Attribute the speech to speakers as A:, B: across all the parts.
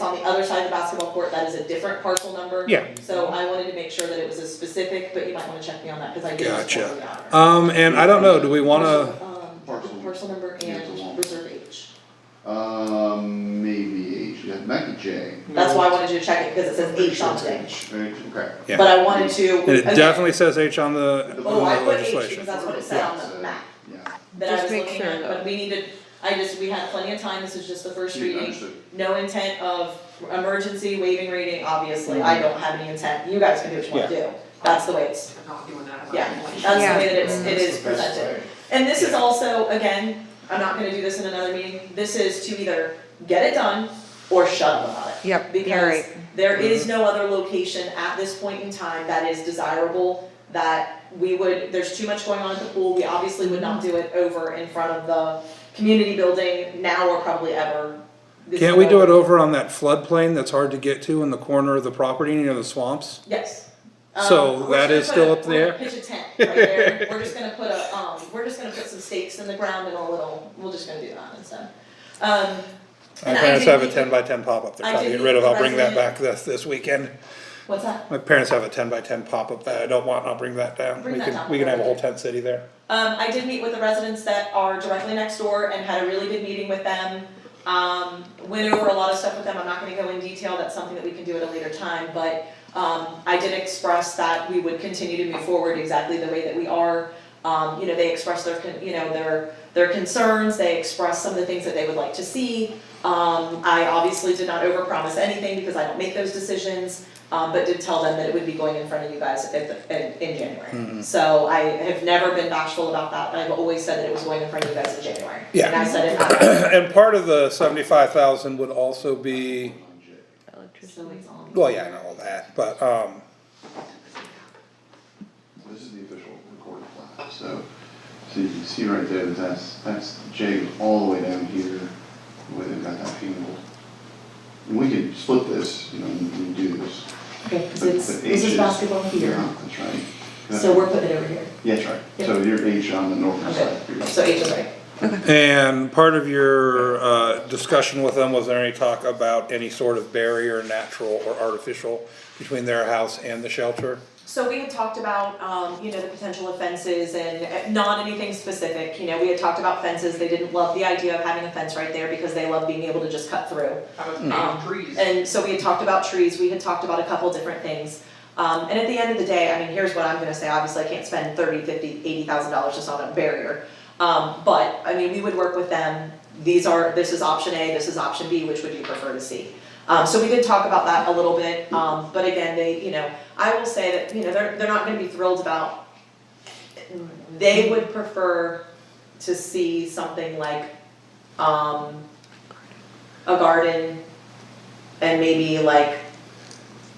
A: on the other side of the basketball court, that is a different parcel number.
B: Yeah.
A: So I wanted to make sure that it was as specific, but you might wanna check me on that, cause I did. just
C: Gotcha.
A: totally honor.
B: Um, and I don't know, do we wanna,
A: Um,
D: Parcel.
A: Parcel number and reserve H.
D: Um, maybe H, yeah, it might be J.
A: That's why I wanted you to check it, because it says H on today.
D: Right, okay.
B: Yeah.
A: But I wanted to.
B: and it
A: again,
B: definitely says H on the, on the
A: Oh, I put H
B: legislation.
A: because that's what it said on the map
D: Yeah.
A: that I
E: Just
A: was
E: make
A: looking
E: sure,
A: at,
E: though.
A: but we needed, I just, we had plenty of time, this is just the first
D: Yeah,
A: reading.
D: understood.
A: No intent of emergency waiving reading, obviously, I don't have any intent, you guys can do what you wanna do, that's the way it's,
F: I'm not doing that.
A: yeah, that's the
E: Yeah.
A: way that it's, it is
D: That's the best
A: presented.
D: way.
A: And this is also, again, I'm not gonna do this in another meeting, this is to either get it done or shut up about it.
E: Yep, you're
A: Because
E: right.
A: there is no other location at this point in time that is desirable, that we would, there's too much going on at the pool, we obviously would not do it over in front of the community building now or probably ever. This
B: Can't we do
A: road-
B: it over on that floodplain that's hard to get to in the corner of the property near the swamps?
A: Yes.
B: So
A: Um, we're just
B: that
A: gonna
B: is
A: put
B: still
A: a-
B: up there?
A: We're gonna pitch a tent right there, we're just gonna put a, um, we're just gonna put some stakes in the ground and a little, we're just gonna do that instead. Um,
B: My
A: And I
B: parents have a
A: didn't-
B: ten by ten pop-up they're
A: I
B: trying to get
A: didn't
B: rid of, I'll bring that
A: represent-
B: back this, this weekend.
A: what's that?
B: My parents have a ten by ten pop-up that I don't want, I'll bring that down.
A: Bring
B: We
A: that
B: can,
A: down.
B: we can have a whole tent city there.
A: Um, I did meet with the residents that are directly next door and had a really good meeting with them. Um, went over a lot of stuff with them, I'm not gonna go in detail, that's something that we can do at a later time, but, um, I did express that we would continue to move forward exactly the way that we are. Um, you know, they expressed their, con- you know, their, their concerns, they expressed some of the things that they would like to see. Um, I obviously did not overpromise anything because I don't make those decisions, um, but did tell them that it would be going in front of you guys at the, in, in January. So I have never been bashful about that, I've always said that it was going in front of you guys in January.
B: Yeah.
A: And I said it out loud.
B: And part of the seventy-five thousand would also be,
A: So it's on.
B: well, yeah, I know all that, but, um,
D: This is the official recorded plat, so, so you can see right there that that's, that's J all the way down here, where they've got that handle. And we could split this, you know, and and do this.
A: Okay, 'cause
D: but-
A: it's,
D: but
A: this
D: H
A: is basketball here,
D: Yeah, that's right.
A: so we're putting it over here,
D: Yeah, that's right, so you're H on the northern side.
A: okay, so H is right.
B: and part of your, uh, discussion with them, was there any talk about any sort of barrier, natural or artificial, between their house and the shelter?
A: So we had talked about, um, you know, the potential of fences and uh, not anything specific, you know, we had talked about fences, they didn't love the idea of having a fence right there because they love being able to just cut through.
F: I was
A: Um,
F: planting trees.
A: And so we had talked about trees, we had talked about a couple different things. Um, and at the end of the day, I mean, here's what I'm gonna say, obviously I can't spend thirty, fifty, eighty thousand dollars just on a barrier. Um, but, I mean, we would work with them, these are, this is option A, this is option B, which would you prefer to see? Um, so we did talk about that a little bit, um, but again, they, you know, I will say that, you know, they're, they're not gonna be thrilled about. They would prefer to see something like, um, a garden and maybe like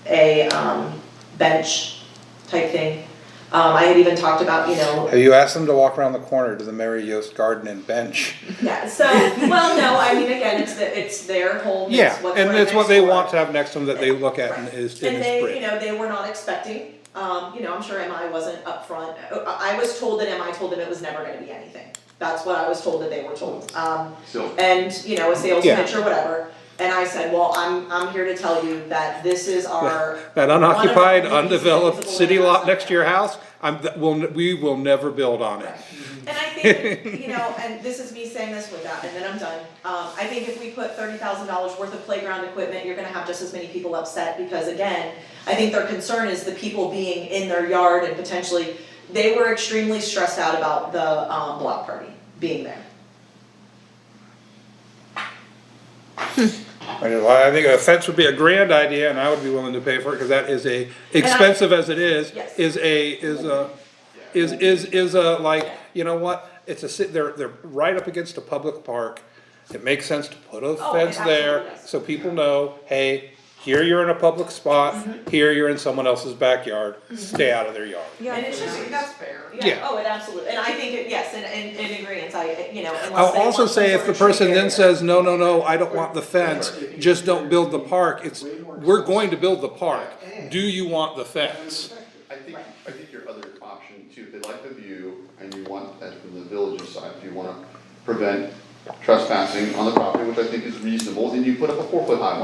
A: a um bench type thing. Um I had even talked about, you know,
B: Have you asked them to walk around the corner to the Mary Yost Garden and Bench?
A: yeah, so, well, no, I mean, again, it's the, it's their home,
B: Yeah,
A: it's what's
B: and
A: right
B: it's what
A: next
B: they
A: door.
B: want to have next to them that they look at and is,
A: And
B: and is
A: they, you
B: pretty.
A: know, they were not expecting, um, you know, I'm sure MI wasn't upfront, I I was told that MI told them it was never gonna be anything. That's what I was told that they were told, um
D: So,
A: and you know a sales
B: Yeah.
A: pitch or whatever. And I said, well, I'm I'm here to tell you that this is our
B: That unoccupied,
A: One of the-
B: undeveloped city lot next to your house, I'm, th- we'll, n- we will never build on it.
A: And I think, you know, and this is me saying this with that, and then I'm done. Um, I think if we put thirty thousand dollars worth of playground equipment, you're gonna have just as many people upset, because again, I think their concern is the people being in their yard and potentially, they were extremely stressed out about the, um, block party being there.
B: I mean, I think a fence would be a grand idea and I would be willing to pay for it, cause that is a, expensive as it is,
A: Yes.
B: is a, is a, is, is, is a, like, you know what? It's a, sit- they're, they're right up against a public park. It makes sense to put a
A: Oh, it
B: fence
A: absolutely
B: there,
A: does.
B: so people know, hey, here you're in a public spot,
A: Mm-hmm.
B: here you're in someone else's backyard, stay out of their yard.
E: Yeah,
A: And it should be-
F: I think that's fair.
B: Yeah.
A: oh, it absolutely, and I think, it yes, and, and, and agreeance, I, you know, unless they
B: I'll also
A: want some
B: say if
A: sort
B: the
A: of tree
B: person then
A: area.
B: says, no, no, no, I don't want the fence, just don't build the park, it's, we're going to build the park, do you want the fence?
D: I think, I think your other option too, if they like the view and you want that from the village's side, if you wanna prevent trespassing on the property, which I think is reasonable, then you put up a four foot high one.